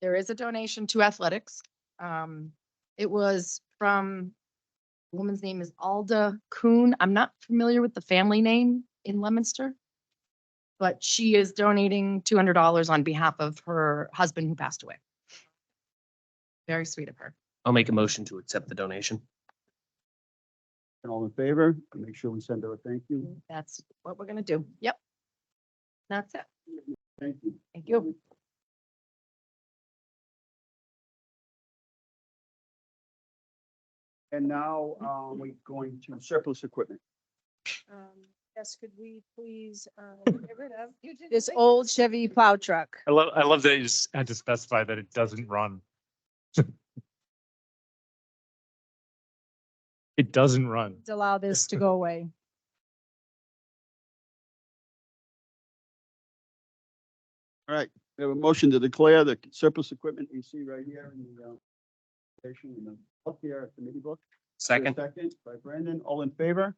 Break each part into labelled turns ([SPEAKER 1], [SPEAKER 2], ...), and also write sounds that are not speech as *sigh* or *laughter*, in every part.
[SPEAKER 1] there is a donation to athletics. Um, it was from, the woman's name is Alda Kuhn. I'm not familiar with the family name in Lemonster. But she is donating two hundred dollars on behalf of her husband who passed away. Very sweet of her.
[SPEAKER 2] I'll make a motion to accept the donation.
[SPEAKER 3] And all in favor, make sure we send her a thank you.
[SPEAKER 1] That's what we're gonna do. Yep. That's it.
[SPEAKER 3] Thank you.
[SPEAKER 1] Thank you.
[SPEAKER 3] And now, um, we're going to surplus equipment.
[SPEAKER 4] Um, Yes, could we please *laughs* uh, get rid of this old Chevy plow truck?
[SPEAKER 5] I love, I love that you just had to specify that it doesn't run. *laughs* It doesn't run.
[SPEAKER 4] Please Allow this to go away.
[SPEAKER 3] All right, we have a motion to declare the surplus equipment you see right here in the, uh, station in the book here, committee book.
[SPEAKER 2] Second,
[SPEAKER 3] Second by Brandon, all in favor?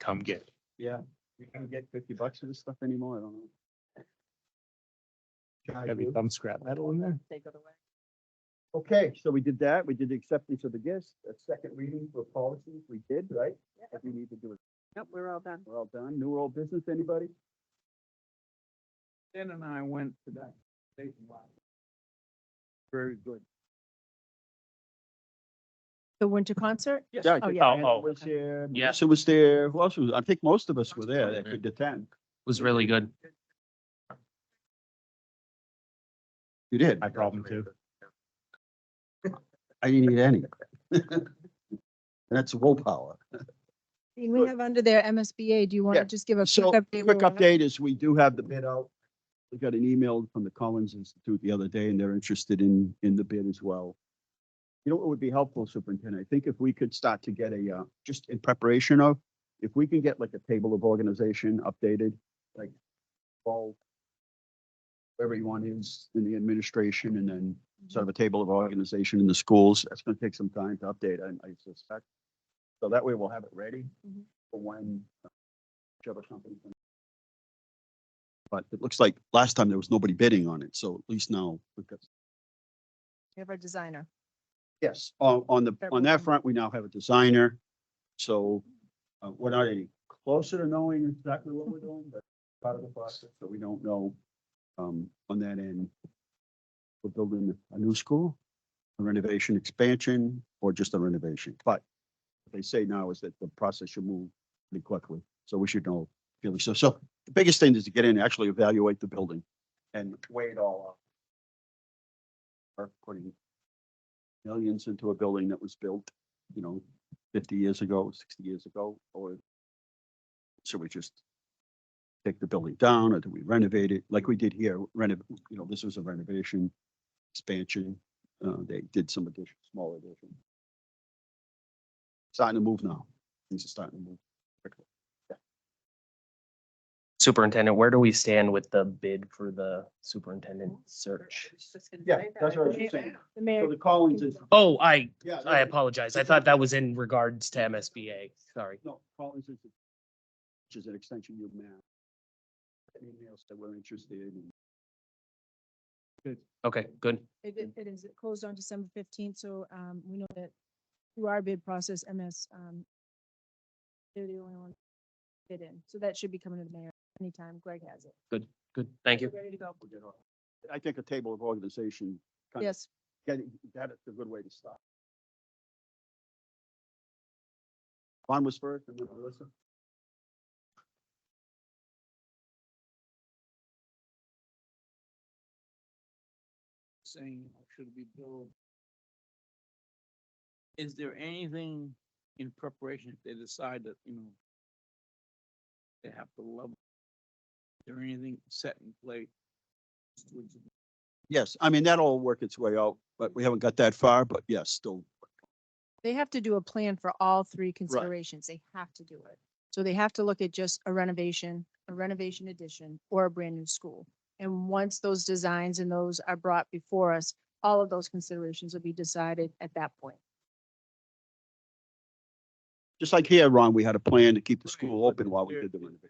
[SPEAKER 2] come get. it.
[SPEAKER 3] Yeah, you can get fifty bucks for this stuff anymore, I don't know. Charge
[SPEAKER 5] Gotta be
[SPEAKER 3] you.
[SPEAKER 5] some scrap metal in there.
[SPEAKER 1] Take it away.
[SPEAKER 3] Okay, so we did that. We did the acceptance of the gifts, a second reading for policies. We did, right? If we need to do it,
[SPEAKER 6] Yep, we're all done.
[SPEAKER 3] we're all done. New or old business, anybody?
[SPEAKER 6] Dan and I went to that.
[SPEAKER 3] Very good.
[SPEAKER 4] The winter concert?
[SPEAKER 3] Yeah, I
[SPEAKER 4] Oh,
[SPEAKER 3] think
[SPEAKER 4] yeah.
[SPEAKER 3] Diana
[SPEAKER 5] Oh, oh.
[SPEAKER 3] was there.
[SPEAKER 2] Yeah.
[SPEAKER 3] Melissa was there. Who else was, I think most of us were there that could attend.
[SPEAKER 2] Was really good.
[SPEAKER 3] You did.
[SPEAKER 5] My problem too.
[SPEAKER 3] I didn't need any. *laughs* That's willpower.
[SPEAKER 4] Dean, We have under there MSBA. Do you want
[SPEAKER 3] Yeah,
[SPEAKER 4] to just give a
[SPEAKER 3] So
[SPEAKER 4] quick update?
[SPEAKER 3] quick
[SPEAKER 4] where we're at?
[SPEAKER 3] update is we do have the bid out. We got an email from the Collins Institute the other day and they're interested in, in the bid as well. You know, what would be helpful, Superintendent, I think if we could start to get a, uh, just in preparation of, if we can get like a table of organization updated, like all everyone is in the administration and then
[SPEAKER 4] Mm-hmm.
[SPEAKER 3] sort of a table of organization in the schools. That's going to take some time to update, I, I suspect. So that way we'll have it ready
[SPEAKER 4] Mhm.
[SPEAKER 3] for when uh, whichever company. comes. But it looks like last time there was nobody bidding on it, so at least now we've got.
[SPEAKER 4] We have our designer.
[SPEAKER 3] Yes. On, on the, on
[SPEAKER 4] Everyone.
[SPEAKER 3] that front, we now have a designer. So uh, we're not any closer to knowing exactly what we're doing, but part of the process, so we don't know. Um, on that end, we're building a new school, a renovation expansion, or just a renovation. But what they say now is that the process should move pretty quickly, so we should know fairly so. So the biggest thing is to get in, and actually evaluate the building and weigh it all up. Or putting millions into a building that was built, you know, fifty years ago, sixty years ago, or should we just take the building down or do we renovate it like we did here? Renov, you know, this was a renovation expansion. Uh, they did some addition, small addition. Starting to move now. Things are starting to move. quickly.
[SPEAKER 2] Superintendent, where do we stand with the bid for the superintendent search?
[SPEAKER 3] Yeah, that's what I was just saying.
[SPEAKER 4] The mayor,
[SPEAKER 3] So the Collins is.
[SPEAKER 2] Oh, I,
[SPEAKER 3] Yeah.
[SPEAKER 2] I apologize. I thought that was in regards to MSBA. Sorry.
[SPEAKER 3] No, Collins is, which is an extension of Mass. Emails that we're interested in.
[SPEAKER 2] Okay, good.
[SPEAKER 4] it i- it is it closed on December fifteenth, so um, we know that through our bid process, MS, um, they're the only one bid in. So that should be coming to the mayor anytime. Greg has it.
[SPEAKER 2] Good. Thank you.
[SPEAKER 4] Ready to go.
[SPEAKER 3] we'll get on. I think a table of organization, Kind of-
[SPEAKER 4] Yes.
[SPEAKER 3] getting, that is a good way to start. Juan was first, and then Melissa.
[SPEAKER 6] Saying "Oh, should be billed. Is there anything in preparation if they decide that, you know, they have to level? Is there anything set in place?
[SPEAKER 3] Yes, I mean, that'll work its way out, but we haven't got that far, but yes, still.
[SPEAKER 4] They have to do a plan for all three considerations. They have to do it. So they have to look at just a renovation, a renovation addition, or a brand new school. And once those designs and those are brought before us, all of those considerations will be decided at that point.
[SPEAKER 3] Just like here, Ron, we had a plan to keep the
[SPEAKER 6] Right,
[SPEAKER 3] school
[SPEAKER 6] but
[SPEAKER 3] open
[SPEAKER 6] is
[SPEAKER 3] while we
[SPEAKER 6] there-
[SPEAKER 3] did the
[SPEAKER 6] is
[SPEAKER 3] renovation.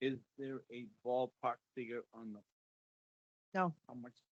[SPEAKER 6] there a- Is there a ballpark figure on the?
[SPEAKER 4] No.
[SPEAKER 6] How much